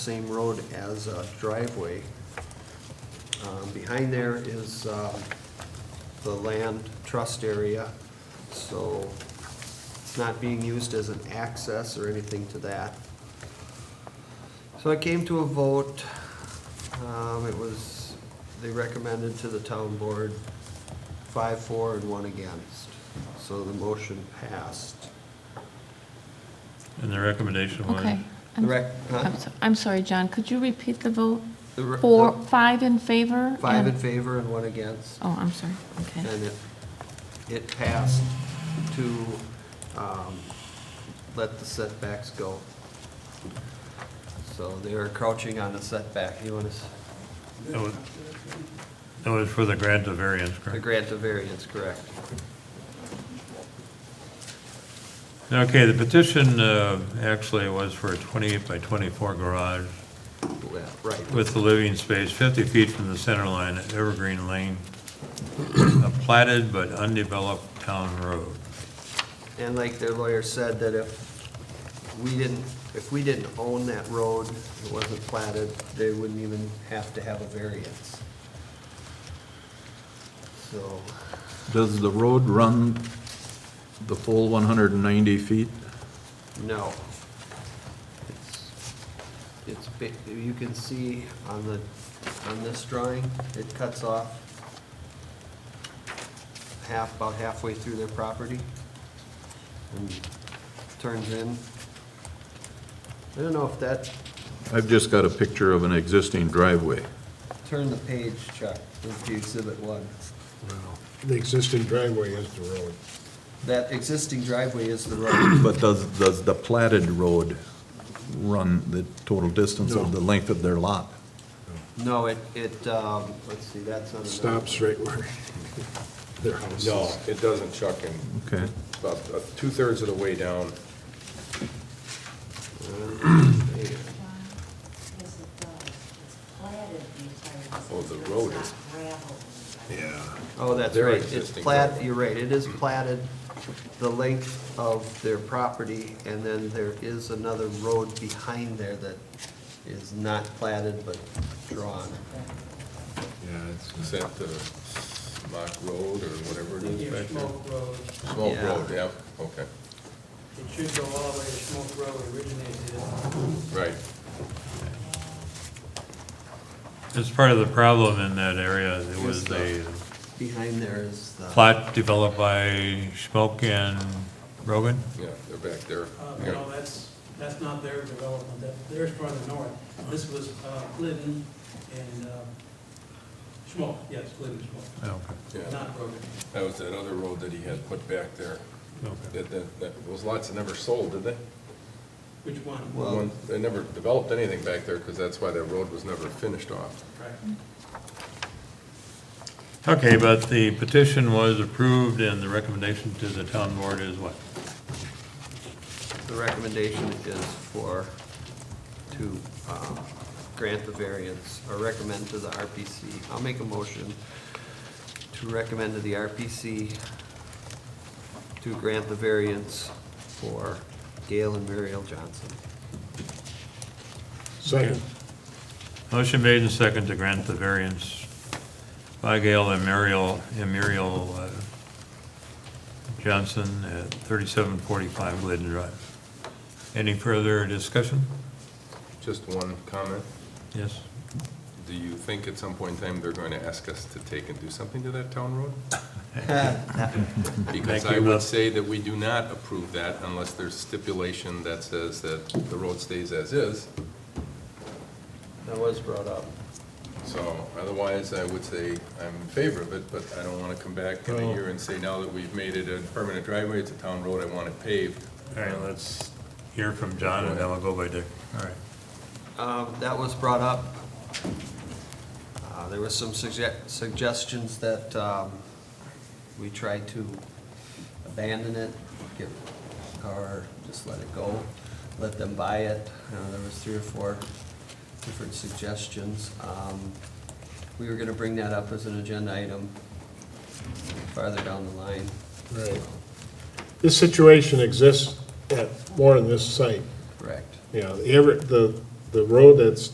same road as a driveway. Um, Behind there is um, the land trust area, so it's not being used as an access or anything to that. So I came to a vote. Um, It was, they recommended to the town board five, four, and one against. So the motion passed. And the recommendation was? Okay. The I'm- rec- huh? I'm so- I'm sorry, John, could you repeat the vote? The re- Four, the- five in favor? Five in and- favor and one against. Oh, I'm sorry, okay. And it, it passed to um, let the setbacks go. So they're crouching on the setback, you want us That was- that was for the grant of variance, to correct? grant the variance, correct? Okay, the petition uh, actually was for a 28 by 24 garage Yeah, Right, with the living space 50 feet from the center line at Evergreen Lane, a platted but undeveloped town road. and like their lawyer said, that if we didn't, if we didn't own that road, it wasn't platted, they wouldn't even have to have a variance. So, Does the road run the full 190 feet? No. It's, it's, ba- you can see on the, on this drawing, it cuts off half, about halfway through their property and turns in. I don't know if that, I've just got a picture of an existing driveway. turn the page, Chuck, to exhibit one. Well, The existing driveway is the road. That existing driveway is the road. But does, does the platted road run the total distance of the length of their lot? No, it, it, um, let's see, that's on It another. Stops right where their house No, is. it doesn't, Chuck, and Okay. about uh, two-thirds of the way down. Uh, Because of the, it's platted the entire distance. Oh, the It's road not is- gravel. Yeah. Oh, that's Their right. It's existing plat, driveway. you're right, it is platted the length of their property, and then there is another road behind there that is not platted but drawn. Yeah, it's- Is that the Mock Road or whatever it is Yeah, back there? Smoke Road. Smoke Yeah. Road, yeah, okay, It should go all the way to Smoke Road originated. right. It's part of the problem in that area. There was a Behind there is the. plot developed by Schmoke and Rogan? Yeah, they're back there. Uh, Yeah. No, that's, that's not their development, that, theirs farther north. This was uh, Glidden and uh, Smoke, yes, Glidden Smoke, Okay, Yeah, not Road. that was that other road that he had put back there. okay. That, that, that, those lots that never sold, did they? Which one? Well- One- They never developed anything back there, because that's why that road was never finished off. Right. Okay, but the petition was approved and the recommendation to the town board is what? The recommendation is for, to um, grant the variance, or recommend to the RPC. I'll make a motion to recommend to the RPC to grant the variance for Gail and Muriel Johnson. Second, Motion made and second to grant the variance by Gail and Muriel, and Muriel uh, Johnson at 3745 Glidden Drive. Any further discussion? Just one comment. Yes? Do you think at some point in time they're going to ask us to take and do something to that town road? Because Thank I you, would Russ. say that we do not approve that unless there's stipulation that says that the road stays as is. That was brought up. So otherwise, I would say I'm in favor of it, but I don't want to come back in a Oh. year and say, now that we've made it a permanent driveway, it's a town road, I want it paved. All right, let's hear from John and then we'll go by Dick. All right. Um, That was brought up. Uh, There were some sugge- suggestions that um, we try to abandon it, get, or just let it go, let them buy it. Uh, There was three or four different suggestions. Um, We were gonna bring that up as an agenda item farther down the line. right. This situation exists at more than this site. Correct. You know, the Ever, the the road that's